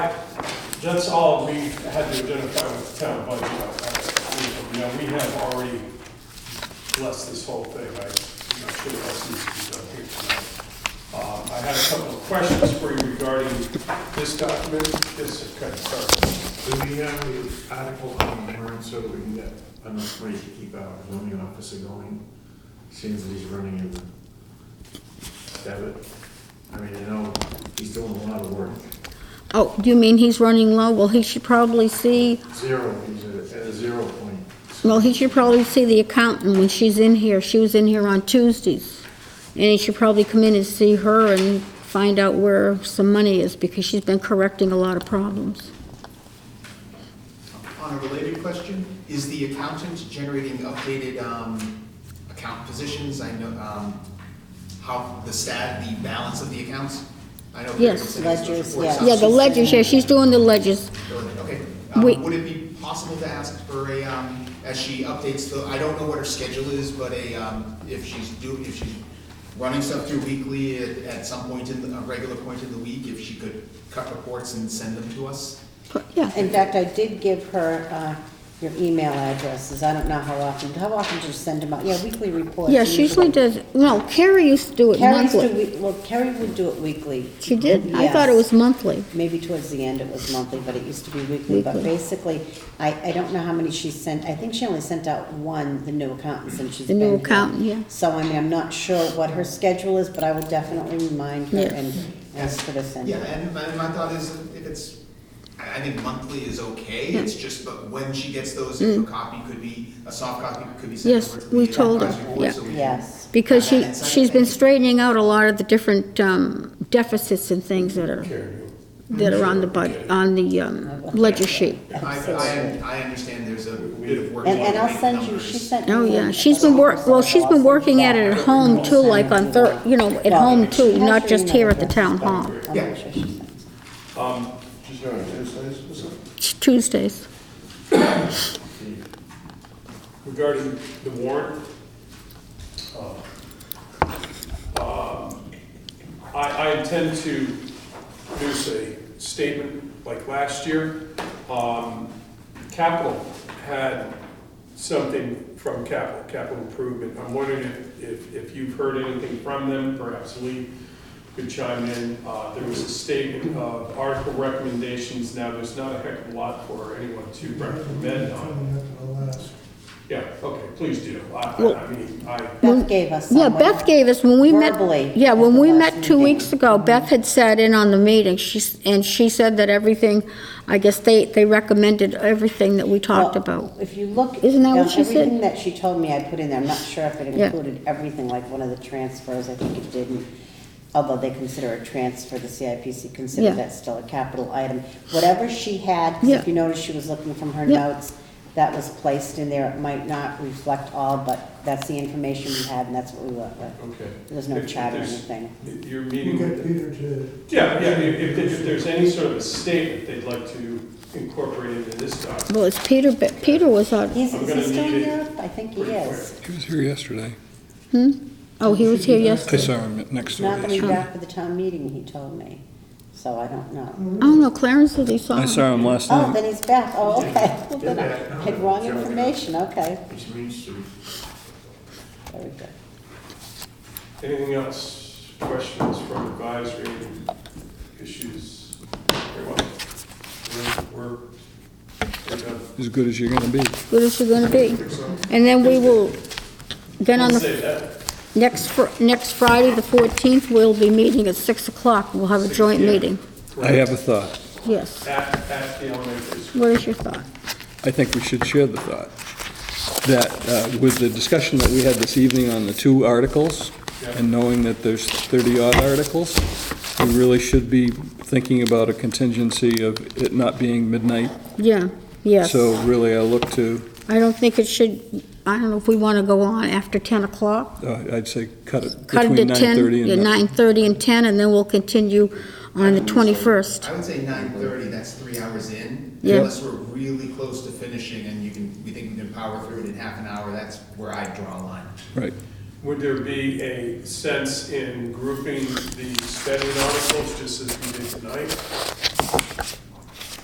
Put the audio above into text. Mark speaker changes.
Speaker 1: That's all we had to identify with the town budget. I- I- Now, we have already blessed this whole thing, I- I'm not sure what else needs to be done here tonight. Um, I had a couple of questions for you regarding this document, this, okay, sorry.
Speaker 2: Do we have the article on the warrant so we can get enough money to keep our zoning officer going? Seems that he's running in the debit. I mean, I know he's doing a lot of work.
Speaker 3: Oh, you mean he's running low? Well, he should probably see,
Speaker 2: Zero, he's at at a zero point.
Speaker 3: well, he should probably see the accountant when she's in here. She was in here on Tuesdays. And he should probably come in and see her and find out where some money is, because she's been correcting a lot of problems.
Speaker 4: On a related question, is the accountant generating updated um, account positions? I know um, how the stat, the balance of the accounts? I know.
Speaker 3: Yes.
Speaker 5: Ledgers, yeah.
Speaker 3: Yeah, the ledgers, yeah, she's doing the ledgers.
Speaker 4: Okay. Um,
Speaker 3: We-
Speaker 4: Would it be possible to ask for a, um, as she updates the, I don't know what her schedule is, but a, um, if she's do, if she's running stuff through weekly at at some point in, the- a regular point in the week, if she could cut reports and send them to us?
Speaker 3: But, Yeah,
Speaker 5: In fact, I did give her uh, your email addresses. I don't know how often, how often do you send them out? Yeah, weekly reports.
Speaker 3: yeah, she usually does, no, Carrie used to do it
Speaker 5: Carrie's do,
Speaker 3: monthly.
Speaker 5: week- well, Carrie would do it weekly.
Speaker 3: She did, I thought it
Speaker 5: Yes.
Speaker 3: was monthly.
Speaker 5: Maybe towards the end it was monthly, but it used to be weekly. But
Speaker 3: Weekly.
Speaker 5: basically, I, I don't know how many she sent. I think she only sent out one, the new accountant, since she's
Speaker 3: The
Speaker 5: been
Speaker 3: new
Speaker 5: here.
Speaker 3: accountant, yeah.
Speaker 5: So I mean, I'm not sure what her schedule is, but I will definitely remind her
Speaker 3: Yeah.
Speaker 5: and ask her to send
Speaker 4: Yeah,
Speaker 5: it.
Speaker 4: and my, my thought is, if it's, I I think monthly is okay, it's just, but when she gets those, if a copy could be, a soft copy could be sent
Speaker 3: Mm. Yes,
Speaker 4: over to
Speaker 3: we
Speaker 4: the
Speaker 3: told her,
Speaker 4: advisory board
Speaker 3: yeah.
Speaker 4: so we can-
Speaker 5: Yes.
Speaker 3: Because she,
Speaker 4: Okay.
Speaker 3: she's been straightening out a lot of the different um, deficits and things that are, that are on the bud, on the um, ledger sheet.
Speaker 4: I, I, I understand there's a bit of work.
Speaker 5: And,
Speaker 4: to
Speaker 5: and
Speaker 4: make
Speaker 5: I'll send you,
Speaker 4: numbers.
Speaker 5: she sent me.
Speaker 3: Oh, yeah,
Speaker 5: one.
Speaker 3: she's been work, well, she's been working at it at home too,
Speaker 5: I'll send
Speaker 3: like
Speaker 5: it to
Speaker 3: on thir, you know, at home too, not just here at the town hall.
Speaker 5: I'll make sure she sends it.
Speaker 1: Um,
Speaker 3: It's Tuesdays.
Speaker 1: Regarding the warrant, uh, um, I, I intend to produce a statement like last year. Um, Capital had something from capital, capital improvement. I'm wondering if- if, if you've heard anything from them, perhaps Lee could chime in. Uh, There was a statement of article recommendations. Now, there's not a heck of a lot for anyone to recommend on. Yeah, okay, please do. I, I- I mean, I,
Speaker 5: Beth gave us
Speaker 3: Yeah,
Speaker 5: some
Speaker 3: Beth gave us, when we met.
Speaker 5: Verbally
Speaker 3: Yeah,
Speaker 5: at
Speaker 3: when
Speaker 5: the
Speaker 3: we
Speaker 5: last
Speaker 3: met two
Speaker 5: meeting.
Speaker 3: weeks ago, Beth had sat in on the meeting, she's, and she said that everything, I guess they, they recommended everything that we talked
Speaker 5: Well,
Speaker 3: about.
Speaker 5: If you look.
Speaker 3: Isn't that
Speaker 5: now,
Speaker 3: what she said?
Speaker 5: Everything that she told me I put in there, I'm not sure if it
Speaker 3: Yeah.
Speaker 5: included everything, like one of the transfers, I think it didn't. Although they consider a transfer, the CIPC
Speaker 3: Yeah.
Speaker 5: considered that still a capital item. Whatever she had, 'cause
Speaker 3: Yeah.
Speaker 5: if you noticed, she was looking from her
Speaker 3: Yeah.
Speaker 5: notes, that was placed in there. It might not reflect all, but that's the information we had and that's what we went with.
Speaker 1: okay.
Speaker 5: There's no
Speaker 1: If- if
Speaker 5: chat or
Speaker 1: there's-
Speaker 5: anything.
Speaker 1: if You're
Speaker 6: You
Speaker 1: meeting
Speaker 6: got
Speaker 1: with,
Speaker 6: Peter to,
Speaker 1: yeah, yeah, if, if there's- if there's any sort of a statement they'd like to incorporate into this document.
Speaker 3: Well, it's Peter, but Peter was on,
Speaker 5: He's,
Speaker 1: I'm
Speaker 5: is
Speaker 1: gonna
Speaker 5: he still
Speaker 1: need
Speaker 5: in
Speaker 1: it
Speaker 5: Europe? I think he
Speaker 1: pretty
Speaker 5: is.
Speaker 7: He was here yesterday.
Speaker 3: oh, he was here
Speaker 7: I
Speaker 3: yesterday.
Speaker 7: saw him at next
Speaker 5: He's
Speaker 7: door
Speaker 5: not gonna be
Speaker 7: yesterday.
Speaker 5: back for the town meeting, he told me, so I don't know.
Speaker 3: Oh, no, Clarence said he saw
Speaker 7: I
Speaker 3: him.
Speaker 7: saw him last
Speaker 5: Oh,
Speaker 7: night.
Speaker 5: then he's back, oh, okay. Well, then I
Speaker 2: Yeah.
Speaker 5: Had wrong information, okay,
Speaker 2: Which means to
Speaker 5: very good.
Speaker 1: Anything else, questions from advisory, issues? Everyone, we're, we're, we're done.
Speaker 7: As good as you're gonna be.
Speaker 3: What is she gonna be? And then we will, then on
Speaker 1: I'll
Speaker 3: the,
Speaker 1: say that.
Speaker 3: next, fr- next Friday, the 14th, we'll be meeting at 6 o'clock. We'll have a joint meeting,
Speaker 7: I have a thought.
Speaker 3: yes.
Speaker 1: At, at the elementary school.
Speaker 3: What is your thought?
Speaker 7: I think we should share the thought, that uh, with the discussion that we had this evening on the two articles, and knowing that there's 30-odd articles, we really should be thinking about a contingency of it not being midnight.
Speaker 3: Yeah, yes.
Speaker 7: So really, I look to,
Speaker 3: I don't think it should, I don't know if we wanna go on after 10 o'clock.
Speaker 7: uh, I'd say, cut it
Speaker 3: Cut it
Speaker 7: between
Speaker 3: to 10,
Speaker 7: 9:30
Speaker 3: yeah,
Speaker 7: and
Speaker 3: 9:30 and 10, and then we'll continue on the 21st.
Speaker 4: I would say nine thirty, that's three hours in,
Speaker 3: Yeah.
Speaker 4: unless we're really close to finishing and you can, we think we can power through it in half an hour, that's where I draw a line.
Speaker 7: Right.
Speaker 1: Would there be a sense in grouping the spending articles just as we did tonight?